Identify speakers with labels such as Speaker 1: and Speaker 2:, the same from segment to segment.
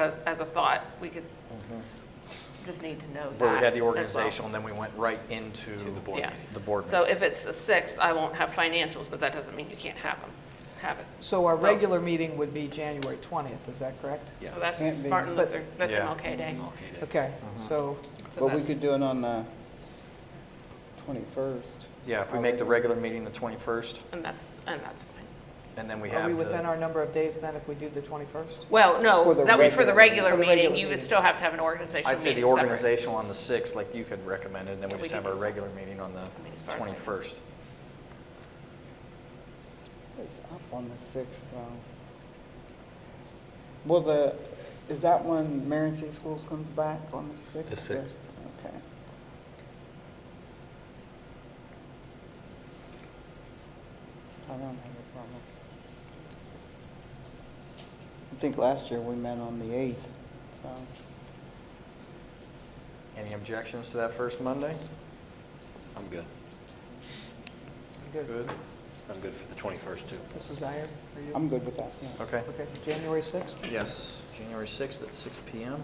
Speaker 1: as, as a thought, we could, just need to know Mm-hmm. that.
Speaker 2: Where we had the
Speaker 1: as well.
Speaker 2: organizational, and then we went right into. the
Speaker 1: board Yeah.
Speaker 2: The board
Speaker 1: So
Speaker 2: meeting.
Speaker 1: if it's the 6th, I won't have financials, but that doesn't mean you can't have them, have it.
Speaker 3: So our regular meeting would be January 20th, is that correct?
Speaker 1: So That's
Speaker 4: Can't be.
Speaker 1: Martin
Speaker 3: But-
Speaker 1: Luther, that's
Speaker 2: Yeah.
Speaker 1: MLK Day.
Speaker 3: Okay,
Speaker 2: Mm-hmm.
Speaker 3: so,
Speaker 1: So
Speaker 4: But we
Speaker 1: that's-
Speaker 4: could do it on the 21st.
Speaker 2: Yeah, if we make the regular meeting the 21st,
Speaker 1: And that's, and that's fine.
Speaker 2: and then we have.
Speaker 3: are we
Speaker 2: the-
Speaker 3: within our number of days then if we do the 21st?
Speaker 1: Well, no,
Speaker 4: For the
Speaker 1: that would, for the regular
Speaker 4: regular-
Speaker 3: for the
Speaker 1: meeting,
Speaker 3: regular
Speaker 1: you would
Speaker 3: meeting.
Speaker 1: still have to have an organizational
Speaker 2: I'd
Speaker 1: meeting
Speaker 2: say the
Speaker 1: separate.
Speaker 2: organizational on the 6th, like you could recommend it, and then we
Speaker 1: Yeah, we
Speaker 2: just have
Speaker 1: could-
Speaker 2: our regular meeting on the
Speaker 1: mean, as far as I know.
Speaker 2: 21st.
Speaker 4: It's up on the 6th, though. Well, the, is that when Marion City Schools comes back on the 6th?
Speaker 5: The 6th.
Speaker 4: Okay. I don't have a problem. I think last year we met on the 8th, so.
Speaker 2: Any objections to that first Monday?
Speaker 5: I'm good.
Speaker 3: Good.
Speaker 5: I'm good for the 21st, too.
Speaker 3: Mrs. Dyer, are you?
Speaker 4: I'm good with that, yeah.
Speaker 2: Okay.
Speaker 3: Okay, January 6th?
Speaker 2: Yes, January 6th at 6 PM.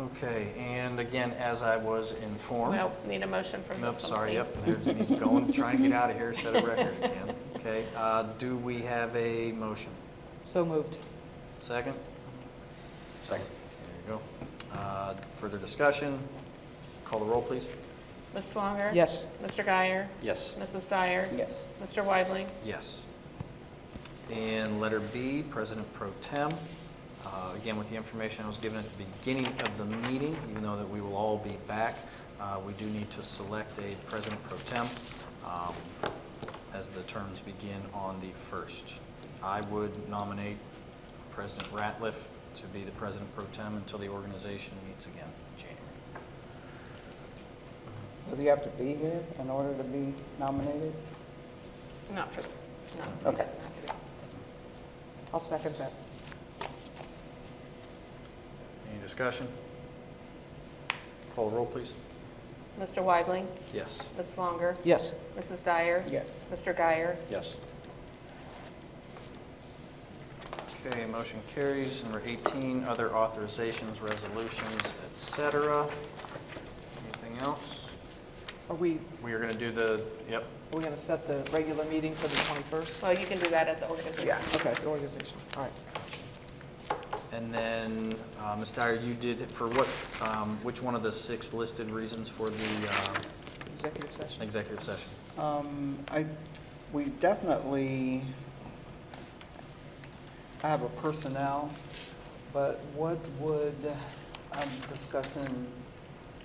Speaker 2: Okay, and again, as I was informed.
Speaker 1: Well, need a motion for this one,
Speaker 2: Nope, sorry,
Speaker 1: please.
Speaker 2: yep, there's me going, trying to get out of here, set a record again. Okay, uh, do we have a motion?
Speaker 3: So moved.
Speaker 2: Second? Second. There you go. Uh, Further discussion? Call the roll, please.
Speaker 1: Ms. Swanger?
Speaker 3: Yes.
Speaker 1: Mr. Guyer?
Speaker 5: Yes.
Speaker 1: Mrs. Dyer?
Speaker 4: Yes.
Speaker 1: Mr. Weidling?
Speaker 2: Yes. And letter B, President Pro Tem. Uh, Again, with the information I was given at the beginning of the meeting, even though that we will all be back, uh, we do need to select a President Pro Tem um, as the terms begin on the 1st. I would nominate President Ratliff to be the President Pro Tem until the organization meets again in January.
Speaker 4: Does he have to be here in order to be nominated?
Speaker 1: Not for, no.
Speaker 4: Okay.
Speaker 3: I'll second that.
Speaker 2: Any discussion? Call the roll, please.
Speaker 1: Mr. Weidling?
Speaker 2: Yes.
Speaker 1: Ms. Swanger?
Speaker 3: Yes.
Speaker 1: Mrs. Dyer?
Speaker 4: Yes.
Speaker 1: Mr. Guyer?
Speaker 5: Yes.
Speaker 2: Okay, motion carries. Number 18, other authorizations, resolutions, et cetera. Anything else?
Speaker 3: Are we,
Speaker 2: We are going to do the, yep,
Speaker 3: we're going to set the regular meeting for the 21st?
Speaker 1: Well, you can do that at the organization.
Speaker 3: Okay, the organization, all right.
Speaker 2: and then, uh, Ms. Dyer, you did, for what, um, which one of the six listed reasons for the uh,
Speaker 3: Executive session.
Speaker 2: executive session?
Speaker 4: Um, I, we definitely have a personnel, but what would, I'm discussing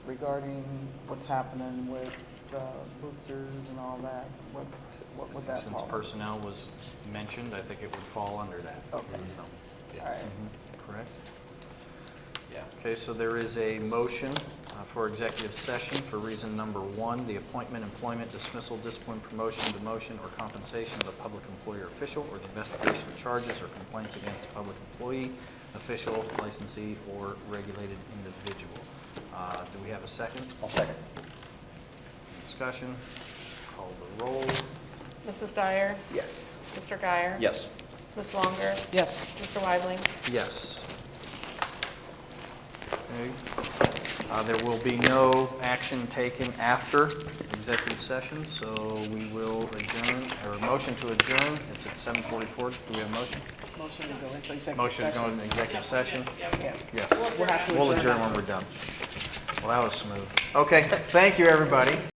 Speaker 4: regarding what's happening with uh, boosters and all that, what, what would that
Speaker 2: Since
Speaker 4: fall?
Speaker 2: personnel was mentioned, I think it would fall under that.
Speaker 4: Okay.
Speaker 2: So, Mm-hmm.
Speaker 4: All Oh. right.
Speaker 2: Correct?
Speaker 5: Yeah.
Speaker 2: Okay, so there is a motion uh, for executive session for reason number one, the appointment, employment, dismissal, discipline, promotion, demotion, or compensation of a public employee or official, or the investigation of charges or complaints against a public employee, official, licensee, or regulated individual. Uh, Do we have a second?
Speaker 5: I'll second.
Speaker 2: Discussion? Call the roll.
Speaker 1: Mrs. Dyer?
Speaker 4: Yes.
Speaker 1: Mr. Guyer?
Speaker 5: Yes.
Speaker 1: Ms. Swanger?
Speaker 3: Yes.
Speaker 1: Mr. Weidling?
Speaker 2: Yes. Okay. Uh, There will be no action taken after executive session, so we will adjourn, or a motion to adjourn. It's at 7:44. Do we have a motion?
Speaker 3: Motion to go into executive
Speaker 2: Motion to go
Speaker 3: session.
Speaker 2: into executive session? Yes.
Speaker 3: We'll have to
Speaker 2: We'll adjourn when we're done. Well, that was smooth. Okay, thank you, everybody.